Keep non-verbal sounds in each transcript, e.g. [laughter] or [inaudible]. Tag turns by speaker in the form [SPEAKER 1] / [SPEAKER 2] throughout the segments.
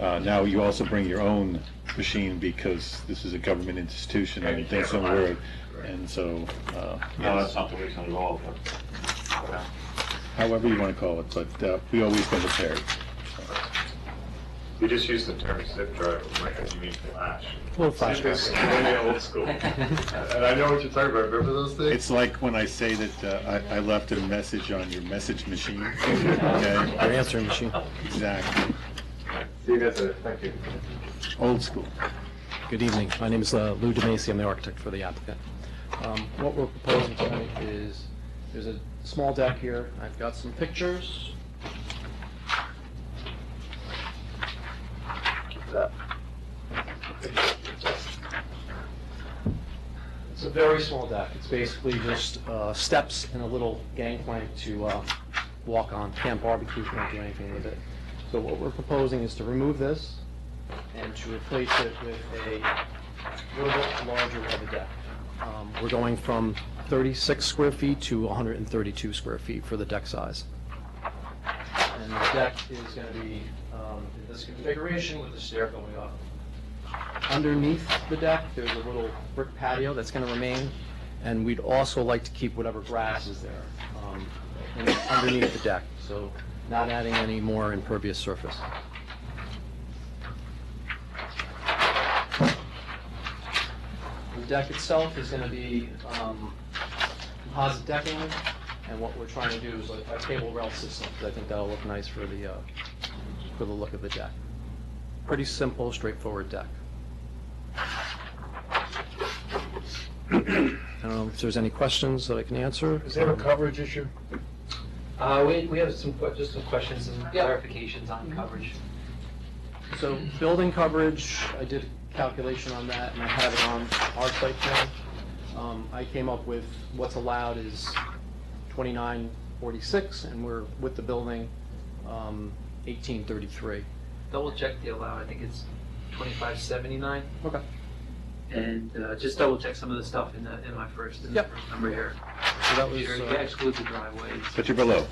[SPEAKER 1] Uh, Now, you also bring your own machine because this is a government institution, I think somewhere, and so, uh,
[SPEAKER 2] No,
[SPEAKER 1] yes,
[SPEAKER 2] that's not the reason at all, but, yeah.
[SPEAKER 1] however you want to call it, but uh, we always go prepared.
[SPEAKER 2] We just use the term zip drive, like, you mean flash.
[SPEAKER 1] Well,
[SPEAKER 2] Zip is really old [laughs] school. And I know what you're talking about, remember those things?
[SPEAKER 1] It's like when I say that uh, I I left a message on your message machine, [laughs] okay?
[SPEAKER 3] Your answering machine.
[SPEAKER 1] Exactly,
[SPEAKER 2] See you guys later, thank you.
[SPEAKER 1] old school.
[SPEAKER 3] Good evening. My name is uh, Lou DeMacy. I'm the architect for the applicant. Um, What we're proposing tonight is, there's a small deck here. I've got some pictures. Keep that. It's a very small deck. It's basically just uh, steps and a little gangplank to uh, walk on. Can't barbecue, can't do anything with it. So what we're proposing is to remove this and to replace it with a little bit larger of a deck. Um, We're going from 36 square feet to 132 square feet for the deck size. And the deck is going to be um, in this configuration with the stair going up. Underneath the deck, there's a little brick patio that's going to remain, and we'd also like to keep whatever grass is there um, in- underneath the deck, so not adding any more impervious surface. The deck itself is going to be um, composite decking, and what we're trying to do is like a cable rail system, because I think that'll look nice for the, uh, for the look of the deck. Pretty simple, straightforward deck. [clears throat] I don't know if there's any questions that I can answer.
[SPEAKER 4] Is there a coverage issue?
[SPEAKER 5] Uh, we, we have some, que- just some questions and
[SPEAKER 3] Yeah. Mm-hmm.
[SPEAKER 5] clarifications on coverage.
[SPEAKER 3] So building coverage, I did a calculation on that, and I have it on our site plan. Um, I came up with what's allowed is twenty-nine forty-six, and we're with the building, um, eighteen thirty-three.
[SPEAKER 5] Double check the allowed, I think it's twenty-five seventy-nine,
[SPEAKER 3] Okay.
[SPEAKER 5] and, uh, just double check some of the stuff in the, in my first, in the
[SPEAKER 3] Yep.
[SPEAKER 5] first number here.
[SPEAKER 3] So that was,
[SPEAKER 5] Peter, you
[SPEAKER 3] uh,
[SPEAKER 5] exclude the driveways.
[SPEAKER 1] But you're below.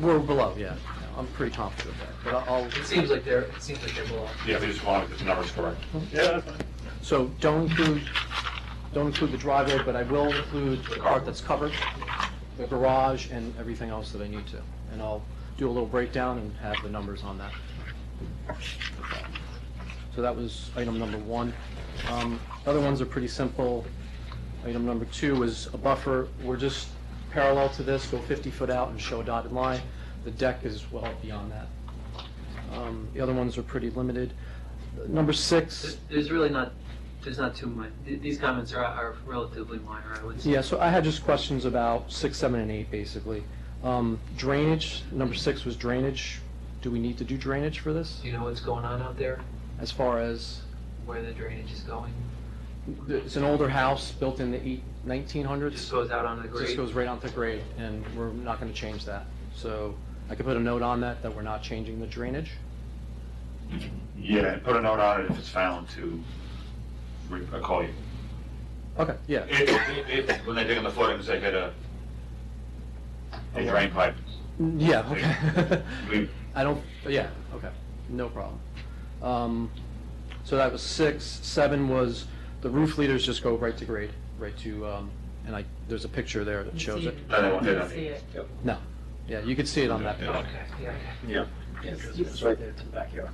[SPEAKER 3] we're below, yeah. I'm pretty confident of that, but I'll.
[SPEAKER 5] It seems like they're, it seems like they're below.
[SPEAKER 2] Yeah, we just wanted the numbers correct.
[SPEAKER 3] So don't include, don't include the driveway, but I will include the part that's covered, the garage and everything else that I need to. And I'll do a little breakdown and have the numbers on that. So that was item number one. Um, Other ones are pretty simple. Item number two is a buffer. We're just parallel to this, go 50 foot out and show a dotted line. The deck is well beyond that. Um, The other ones are pretty limited. Number six.
[SPEAKER 5] There's- There's really not, there's not too much, th- these comments are, are relatively minor, I would say.
[SPEAKER 3] Yeah, so I had just questions about six, seven, and eight, basically. Um, Drainage, number six was drainage. Do we need to do drainage for this?
[SPEAKER 5] Do you know what's going on out there,
[SPEAKER 3] As far as,
[SPEAKER 5] where the drainage is going?
[SPEAKER 3] it's an older house built in the eight-
[SPEAKER 5] It just
[SPEAKER 3] 1900s.
[SPEAKER 5] goes out on the grade?
[SPEAKER 3] Just goes right onto grade, and we're not going to change that. So I could put a note on that, that we're not changing the drainage.
[SPEAKER 2] Yeah, and put a note on it if it's found to, re- I'll call you.
[SPEAKER 3] Okay, yeah.
[SPEAKER 2] If, if, if, when they dig in the footings, they get a, a drain pipe.
[SPEAKER 3] Yeah,
[SPEAKER 5] [laughs]
[SPEAKER 3] okay. [laughs]
[SPEAKER 2] We,
[SPEAKER 3] I don't, yeah, okay, no problem. Um, So that was six, seven was, the roof leaders just go right to grade, right to, um, and I, there's a picture there that shows it.
[SPEAKER 2] no, they won't do
[SPEAKER 6] See
[SPEAKER 2] that.
[SPEAKER 6] it.
[SPEAKER 3] No, yeah, you could see it on that picture.
[SPEAKER 5] Okay, yeah, okay.
[SPEAKER 2] Yeah.
[SPEAKER 5] It's right there to the backyard.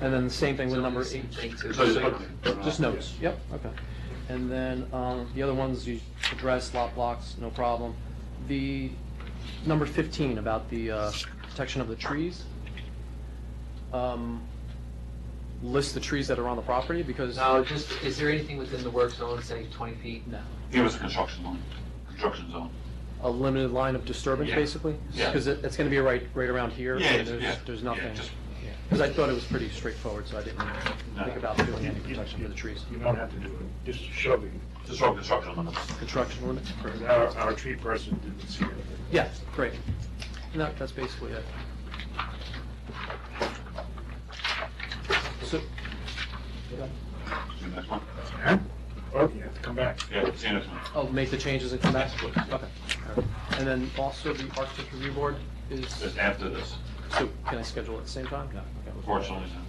[SPEAKER 3] And then the same thing with number eight,
[SPEAKER 2] So just
[SPEAKER 5] uh,
[SPEAKER 2] put-
[SPEAKER 3] just notes, yep, okay. And then um, the other ones, you address lot blocks, no problem. The number 15 about the uh, protection of the trees. um, List the trees that are on the property because.
[SPEAKER 5] No, just, is there anything within the work zone, say twenty feet?
[SPEAKER 3] No.
[SPEAKER 2] It was a construction line, construction zone.
[SPEAKER 3] a limited line of disturbance,
[SPEAKER 2] Yeah.
[SPEAKER 3] basically?
[SPEAKER 2] Yeah.
[SPEAKER 3] Because it's going to be right, right around here.
[SPEAKER 2] Yeah,
[SPEAKER 3] and
[SPEAKER 2] yeah,
[SPEAKER 3] there's-
[SPEAKER 2] yeah.
[SPEAKER 3] There's
[SPEAKER 2] Yeah,
[SPEAKER 3] nothing,
[SPEAKER 2] just-
[SPEAKER 3] because I thought it was pretty straightforward, so I didn't
[SPEAKER 2] No.
[SPEAKER 3] think about doing any protection for the trees.
[SPEAKER 4] You don't have to do it, just shove it.
[SPEAKER 2] Just wrong construction limits.
[SPEAKER 3] Construction limits?
[SPEAKER 4] Because Our, our tree person didn't see it.
[SPEAKER 3] Yeah, great. And that, that's basically it. So,
[SPEAKER 2] See you next one.
[SPEAKER 4] Oh, you have to come back.
[SPEAKER 2] Yeah, see you next one.
[SPEAKER 3] I'll oh, make the changes and come back?
[SPEAKER 2] Yes, please.
[SPEAKER 3] Okay. All right. And then also the architecture review board is,
[SPEAKER 2] Just after this,
[SPEAKER 3] so can I schedule at the same time? No. Okay.
[SPEAKER 2] unfortunately. no.